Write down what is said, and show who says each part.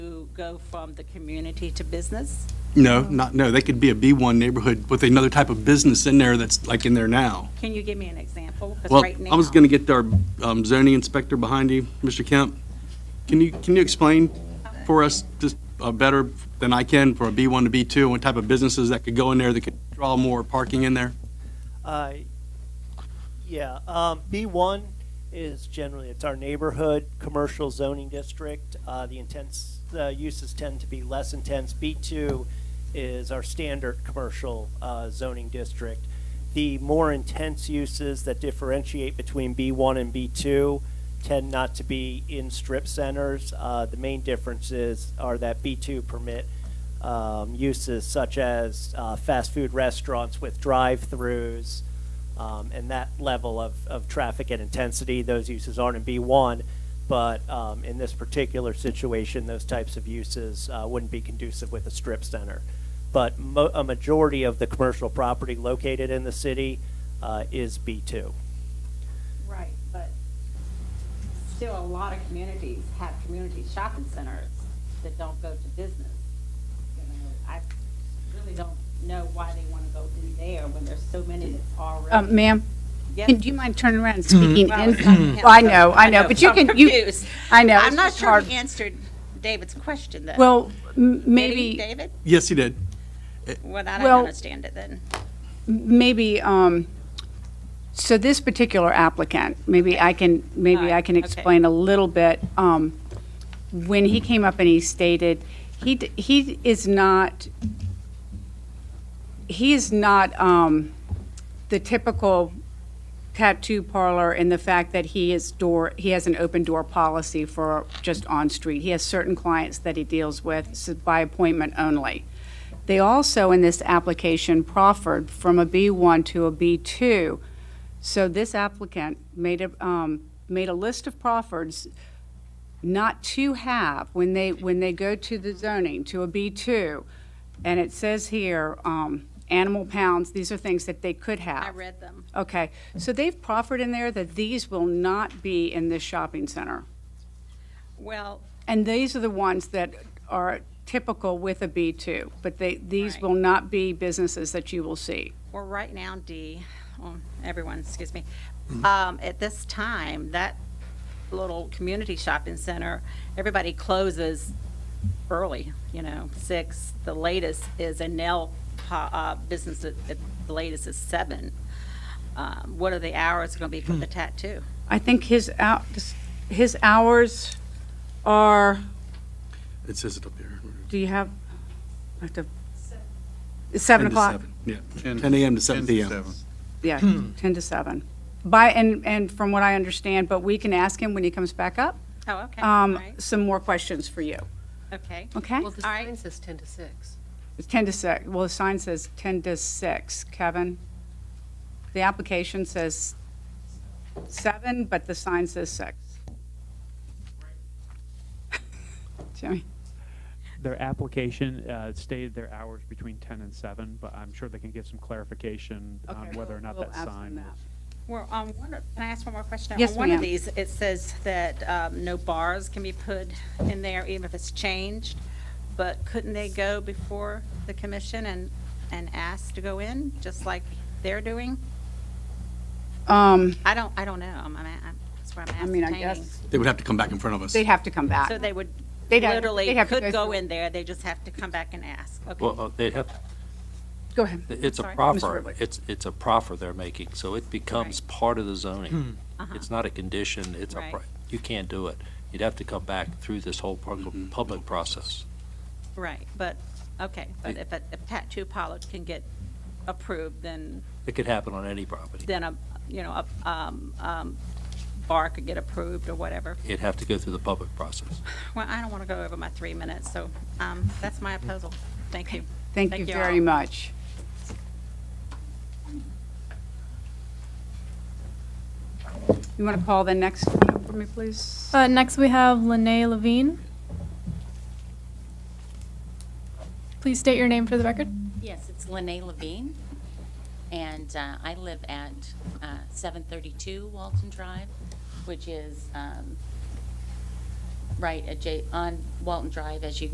Speaker 1: go from the community to business?
Speaker 2: No, not, no, they could be a B1 neighborhood with another type of business in there that's like in there now.
Speaker 1: Can you give me an example? 'Cause
Speaker 2: Well,
Speaker 1: right
Speaker 2: I was
Speaker 1: now-
Speaker 2: going to get our um, zoning inspector behind you, Mr. Kemp. Can you, can you explain for us just uh, better than I can for a B1 to B2, what type of businesses that could go in there that could draw more parking in there?
Speaker 3: Uh, yeah, um, B1 is generally, it's our neighborhood, commercial zoning district. Uh, the intense, the uses tend to be less intense. B2 is our standard commercial, uh, zoning district. The more intense uses that differentiate between B1 and B2 tend not to be in strip centers. Uh, the main differences are that B2 permit um, uses such as uh, fast food restaurants with drive-throughs um, and that level of, of traffic and intensity. Those uses aren't in B1, but um, in this particular situation, those types of uses uh, wouldn't be conducive with a strip center. But mo- a majority of the commercial property located in the city uh, is B2.
Speaker 1: Right, but still a lot of communities have community shopping centers that don't go to business. You know, I really don't know why they want to go in there when there's so many that's
Speaker 4: Uh,
Speaker 1: already.
Speaker 4: Ma'am,
Speaker 1: Yes.
Speaker 4: and do you mind turning around and speaking
Speaker 1: Mm. Well, it's
Speaker 4: in?
Speaker 1: not-
Speaker 4: Well, I know, I know, but you
Speaker 1: I'm
Speaker 4: can, you,
Speaker 1: confused.
Speaker 4: I know.
Speaker 1: I'm
Speaker 4: it's
Speaker 1: not
Speaker 4: just
Speaker 1: sure
Speaker 4: hard.
Speaker 1: you answered David's question, though.
Speaker 4: Well, m-
Speaker 1: Did he,
Speaker 4: maybe.
Speaker 1: David?
Speaker 2: Yes, he did.
Speaker 1: Well, I don't
Speaker 4: Well-
Speaker 1: understand it then.
Speaker 4: maybe, um, so this particular applicant, maybe I can, maybe I can
Speaker 1: Alright, okay.
Speaker 4: explain a little bit. Um, When he came up and he stated, he, d- he is not, he is not um, the typical tattoo parlor in the fact that he is door, he has an open door policy for just on-street. He has certain clients that he deals with s- by appointment only. They also, in this application, proffered from a B1 to a B2. So this applicant made a, um, made a list of proffers not to have when they, when they go to the zoning, to a B2. And it says here, um, animal pounds, these are things that they could have.
Speaker 1: I read them.
Speaker 4: Okay, so they've proffered in there that these will not be in this shopping center.
Speaker 1: Well,
Speaker 4: And these are the ones that are typical with a B2, but they, these
Speaker 1: Right.
Speaker 4: will not be businesses that you will see.
Speaker 1: Well, right now, D, um, everyone, excuse me, um, at this time, that little community shopping center, everybody closes early, you know, six. The latest is a nail pa- uh, business, at- at the latest is seven. Um, What are the hours going to be for the tattoo?
Speaker 4: I think his out, his hours are,
Speaker 2: It says it up there.
Speaker 4: do you have, I have to, seven o'clock?
Speaker 2: Yeah, 10 a.m. to 7 p.m.
Speaker 4: Yeah, 10 to 7. By, and, and from what I understand, but we can ask him when he comes back up,
Speaker 1: Oh, okay, all
Speaker 4: um,
Speaker 1: right,
Speaker 4: some more questions for you,
Speaker 1: okay.
Speaker 4: okay?
Speaker 5: Well, the
Speaker 1: All right.
Speaker 5: sign says 10 to 6.
Speaker 4: It's 10 to 6, well, the sign says 10 to 6, Kevin. The application says 7, but the sign says 6. Jimmy,
Speaker 6: Their application uh, stated their hours between 10 and 7, but I'm sure they can give some clarification on
Speaker 4: Okay,
Speaker 6: whether or
Speaker 4: we'll-
Speaker 6: not
Speaker 4: we'll
Speaker 6: that
Speaker 4: ask them
Speaker 6: sign
Speaker 4: that.
Speaker 6: was.
Speaker 1: Well, on one, of- can I ask one more question?
Speaker 4: Yes,
Speaker 1: On one of
Speaker 4: ma'am.
Speaker 1: these, it says that um, no bars can be put in there even if it's changed, but couldn't they go before the commission and, and ask to go in, just like they're doing?
Speaker 4: Um,
Speaker 1: I don't, I don't know, I'm, I'm, I'm- that's what I'm
Speaker 4: I mean, I
Speaker 1: ascertaining.
Speaker 4: guess,
Speaker 2: They would have to come back in front of us.
Speaker 4: they'd have to come back.
Speaker 1: So they would,
Speaker 4: They'd have-
Speaker 1: literally
Speaker 4: they'd have to
Speaker 1: could
Speaker 4: go
Speaker 1: go
Speaker 4: through-
Speaker 1: in there, they just have to come back and ask, okay?
Speaker 7: Well, uh, they have,
Speaker 4: Go ahead.
Speaker 7: it's a
Speaker 1: Sorry. Mr.
Speaker 7: proffer,
Speaker 4: Ridley.
Speaker 7: it's, it's a proffer they're making, so it becomes part of the zoning. It's not a condition, it's a,
Speaker 1: Uh-huh. Right.
Speaker 7: pro- you can't do it. You'd have to come back through this whole pub- public process.
Speaker 1: Right, but, okay, but if a if tattoo parlor can get approved, then
Speaker 7: It could happen on any property.
Speaker 1: then a, you know, a um, um, bar could get approved or whatever.
Speaker 7: It'd have to go through the public process.
Speaker 1: Well, I don't want to go over my three minutes, so um, that's my proposal. Thank you.
Speaker 4: Thank you very
Speaker 1: all.
Speaker 4: much. You want to call the next one up for me, please?
Speaker 8: Uh, next, we have Lene Levine. Please state your name for the record.
Speaker 9: Yes, it's Lene Levine, and uh, I live at uh, 732 Walton Drive, which is um, right adja, on Walton Drive as you